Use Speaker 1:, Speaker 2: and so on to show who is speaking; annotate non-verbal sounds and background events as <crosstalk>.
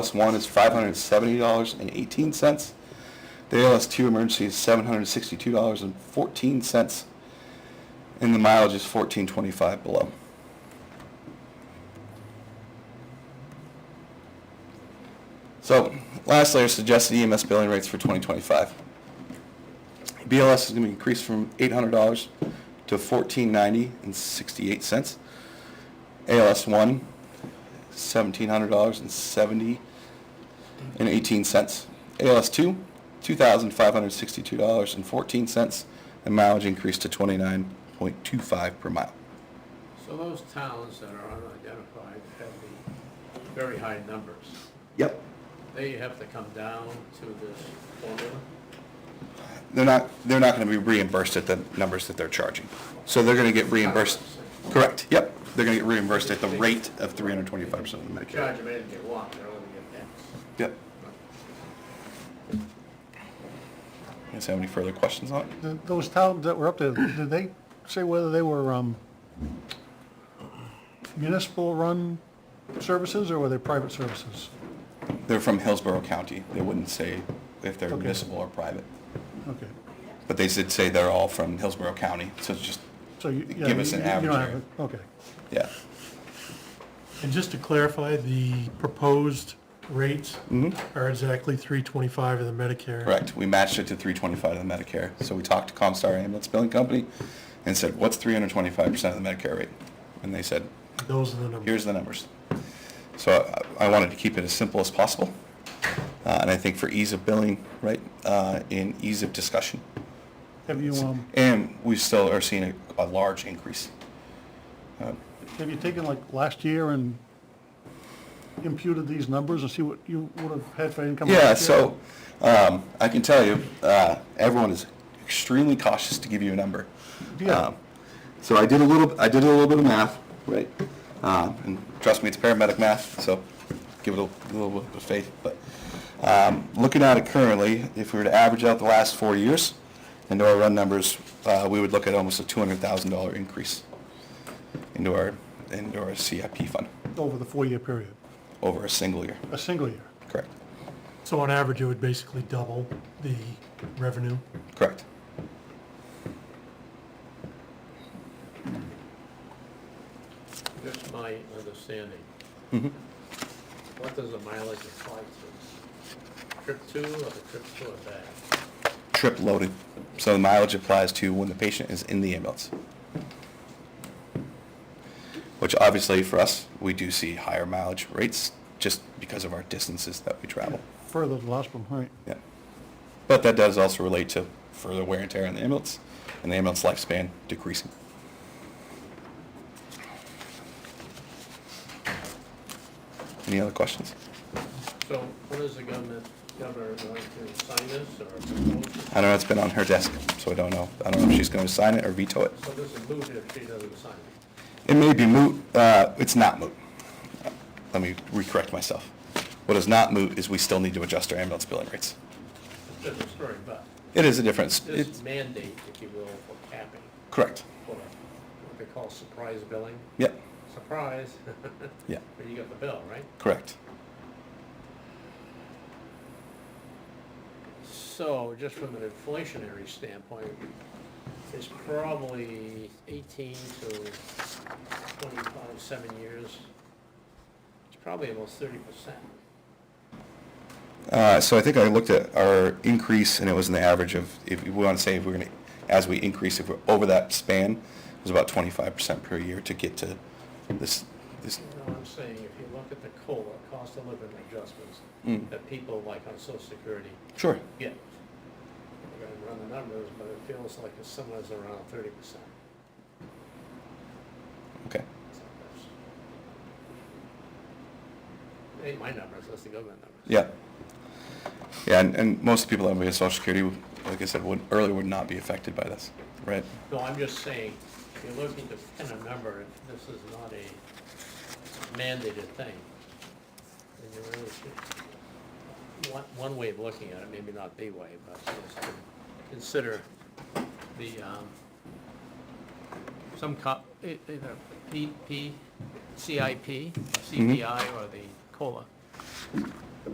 Speaker 1: ALS one is five hundred and seventy dollars and eighteen cents. The ALS two emergency is seven hundred and sixty-two dollars and fourteen cents. And the mileage is fourteen twenty-five below. So lastly, I suggested EMS billing rates for twenty twenty-five. BLS is going to be increased from eight hundred dollars to fourteen ninety and sixty-eight cents. ALS one seventeen hundred dollars and seventy and eighteen cents. ALS two, two thousand five hundred sixty-two dollars and fourteen cents, and mileage increased to twenty-nine point two five per mile.
Speaker 2: So those towns that are unidentified have the very high numbers.
Speaker 1: Yep.
Speaker 2: They have to come down to this formula.
Speaker 1: They're not, they're not gonna be reimbursed at the numbers that they're charging. So they're gonna get reimbursed, correct, yep, they're gonna get reimbursed at the rate of three hundred twenty-five percent of the Medicare.
Speaker 2: Charge them anything they want, they're only getting X.
Speaker 1: Yep. Guys have any further questions on it?
Speaker 3: Th- Those towns that were up there, did they say whether they were um, municipal-run services or were they private services?
Speaker 1: They're from Hillsborough County. They wouldn't say if they're
Speaker 3: Okay.
Speaker 1: municipal or private.
Speaker 3: Okay,
Speaker 1: But they did say they're all from Hillsborough County, so it's just,
Speaker 3: so you. yeah,
Speaker 1: Give us an
Speaker 3: you- you don't
Speaker 1: average
Speaker 3: have
Speaker 1: area.
Speaker 3: it. Okay,
Speaker 1: yeah.
Speaker 4: And just to clarify, the proposed rates
Speaker 1: Mhm.
Speaker 4: are exactly three twenty-five of the Medicare.
Speaker 1: Correct. We matched it to three twenty-five of the Medicare. So we talked to Comstar Ambulance Billing Company and said, what's three hundred twenty-five percent of the Medicare rate? And they said,
Speaker 4: Those are the numbers.
Speaker 1: here's the numbers. So I I wanted to keep it as simple as possible. Uh, And I think for ease of billing, right, uh, and ease of discussion.
Speaker 3: have you, um,
Speaker 1: And we still are seeing a, a large increase.
Speaker 3: have you taken like last year and imputed these numbers and see what you would have had for income?
Speaker 1: Yeah,
Speaker 3: last year?
Speaker 1: so um, I can tell you, uh, everyone is extremely cautious to give you a number.
Speaker 3: Yeah.
Speaker 1: Um, so I did a little, I did a little bit of math, right? Um, and trust me, it's paramedic math, so give it a little bit of faith. But um, looking at it currently, if we were to average out the last four years into our run numbers, uh, we would look at almost a two hundred thousand dollar increase into our into our CIP fund
Speaker 3: Over the four-year period,
Speaker 1: over a single year.
Speaker 3: a single year.
Speaker 1: Correct.
Speaker 4: So on average, it would basically double the revenue.
Speaker 1: Correct.
Speaker 2: Just my understanding. What does the mileage apply to? Trip to or the trip to or back?
Speaker 1: trip loaded. So the mileage applies to when the patient is in the ambulance. Which obviously for us, we do see higher mileage rates just because of our distances that we travel.
Speaker 3: Further to the hospital, right.
Speaker 1: Yeah. But that does also relate to further wear and tear on the ambulance and the ambulance lifespan decreasing. Any other questions?
Speaker 2: So when is the government, governor going to sign this or propose it?
Speaker 1: I don't know, it's been on her desk, so I don't know. I don't know if she's going to sign it or veto it.
Speaker 2: So this is moot if she doesn't sign it.
Speaker 1: It may be moot, uh, it's not moot. Let me recorrect myself. What is not moot is we still need to adjust our ambulance billing rates.
Speaker 2: It's a different story, but
Speaker 1: It is a difference.
Speaker 2: this
Speaker 1: It's,
Speaker 2: mandate, if you will, for capping,
Speaker 1: correct.
Speaker 2: for what they call surprise billing.
Speaker 1: Yep,
Speaker 2: Surprise, <laughs>
Speaker 1: yeah,
Speaker 2: when you got the bill, right?
Speaker 1: correct.
Speaker 2: So just from an inflationary standpoint, it's probably eighteen to twenty-five, seven years. It's probably almost thirty percent.
Speaker 1: Uh, so I think I looked at our increase and it was in the average of, if we want to say if we're going to, as we increase, if we're over that span, it was about twenty-five percent per year to get to this, this,
Speaker 2: You know what I'm saying? If you look at the COLA, cost of living adjustments,
Speaker 1: Mm.
Speaker 2: that people like on social security
Speaker 1: sure.
Speaker 2: get. We're gonna run the numbers, but it feels like it's somewhere around thirty percent.
Speaker 1: Okay,
Speaker 2: It ain't my numbers, that's the government numbers.
Speaker 1: yeah. Yeah, and, and most people that would be on social security, like I said, would, earlier would not be affected by this, right?
Speaker 2: No, I'm just saying, if you're looking to pin a number, if this is not a mandated thing, then you really should, one, one way of looking at it, maybe not the way, but just to consider the, um, some co, e- either P, P, CIP, CPI, or the COLA.